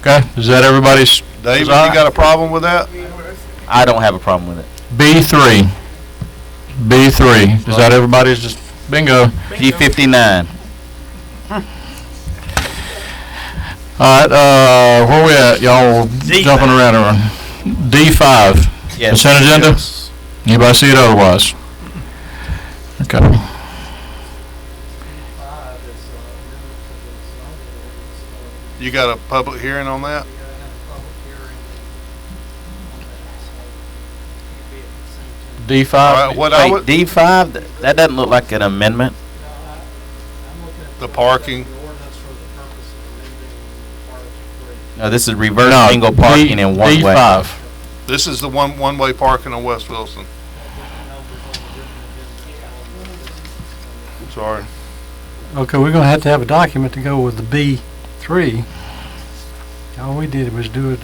Okay, is that everybody's David, you Desire? got a problem with that? I don't have a problem with it. B three? B three, is that everybody's just, bingo. P fifty-nine. All right, uh, where we at? Y'all jumping around around. D five, Yes. consent agenda? Yes. Anybody see it otherwise? Okay. You got a public hearing on that? D All five? right, what I Wait, would, D five, that doesn't look like an amendment. the parking, No, this is reverse No, single parking in one D way. five. this is the one, one-way parking on West Wilson. Sorry. Okay, we're gonna have to have a document to go with the B three. All we did was do it,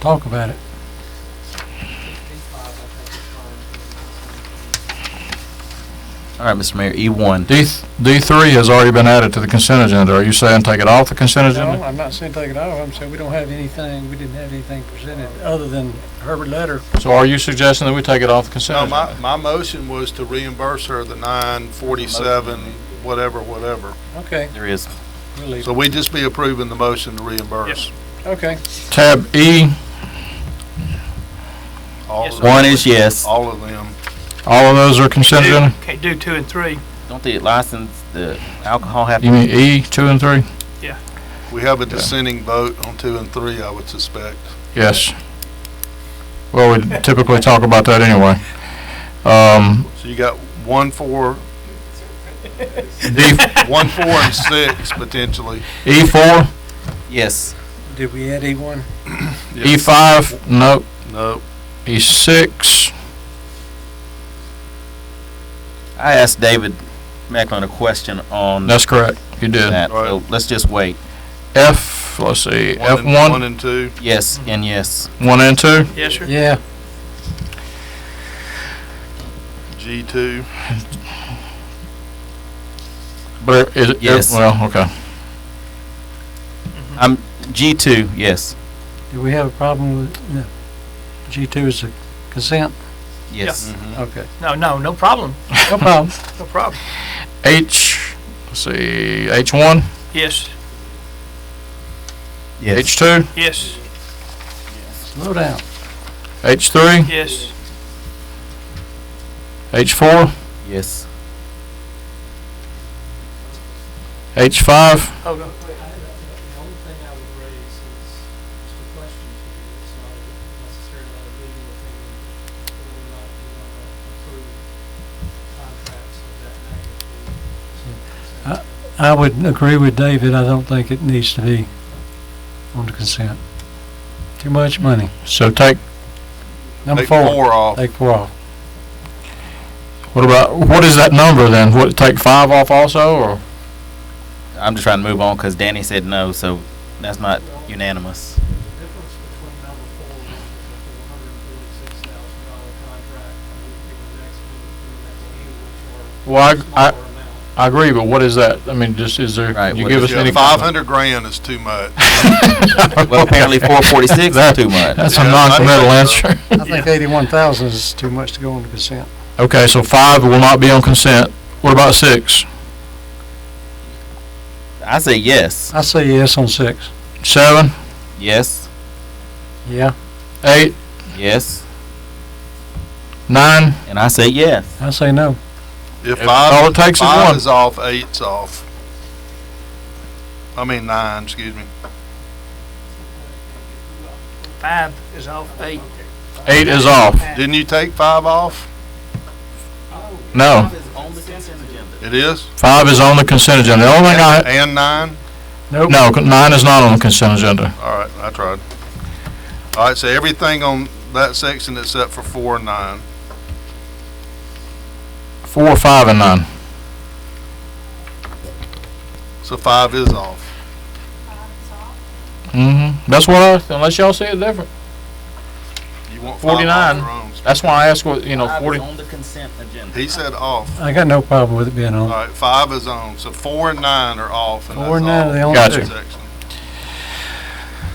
talk about it. All right, Mr. Mayor, E one. D, D three has already been added to the consent agenda. Are you saying take it off the consent agenda? I'm not saying take it off, I'm saying we don't have anything, we didn't have anything presented other than Herbert letter. So are you suggesting that we take it off the No, consent my, agenda? my motion was to reimburse her the nine forty-seven, whatever, whatever. Okay, There is. we'll leave. So we would just be approving the motion to reimburse. Okay. Tab E, All of One them. is yes. All of them. all of those are E. consent do- agenda? Can't do two and three. Don't the license, the alcohol have You to mean E, two and three? We have a dissenting vote on two and three, I would suspect. Yes. Well, we typically talk about that anyway. Um, So you got one, four, D, one, four, and six potentially. E four, Yes. Did we add E one? E five, nope, No. E six. I asked David Macklin a question on That's correct. You did. that, so let's just wait. F, let's see, One F and- One one, and two. Yes and yes. one and two, Yes, sir. Yeah, G two. but is it? Yes. Well, okay. I'm, G two, yes, do we have a problem with, no. G two is a consent? yes. Mm-hmm. Okay. No, no, no problem. No problem. No problem. H, let's see, H one, Yes, H two, yes, Slow down. H three, yes, H four, Yes. H five, hold The on. only thing I would raise is just a question to you. It's not necessarily a legal opinion, whether or not you want to approve contracts of that magnitude. I would agree with David, I don't think it needs to be on the consent. Too much money. so take, Number Take four, Four off. take four off. what about, what is that number then? What, take five off also, or? I'm just trying to move on because Danny said no, so that's not unanimous. The difference between number four and the four hundred and forty-six thousand dollar contract, I would give the next, the next meeting, which are Well, I, I, smaller amounts. I agree, but what is that? I mean, just, is there, Right, you what give is us any? Five hundred grand is too much. Well, apparently four forty-six is That- too much. That's a Yeah, non-committal I think so. answer. I think eighty-one thousand is too much to go on the consent. Okay, so five will not be on consent. What about six? I say yes, I say yes on six. Seven, yes, Yeah, eight, yes, nine? and I say yes. I say no. If If all five, it takes is five one. is off, eight's off. I mean nine, excuse me. Five is off, eight. Eight is off. Didn't you take five off? No, It is? five is on the consent agenda. The only thing I, And nine? Nope. no, nine is not on the consent agenda. All right, I tried. All right, so everything on that section except for four and nine. Four, five, and nine. So five is off. Mm-hmm. That's what I, unless y'all see it different. You want five 49. off or on? That's why I asked what, you know, forty. on the consent agenda. He said off. I got no problem with it being All on. right, five is on, so four and nine are off. and that's Four and nine all. are the only Gotcha. two. Section.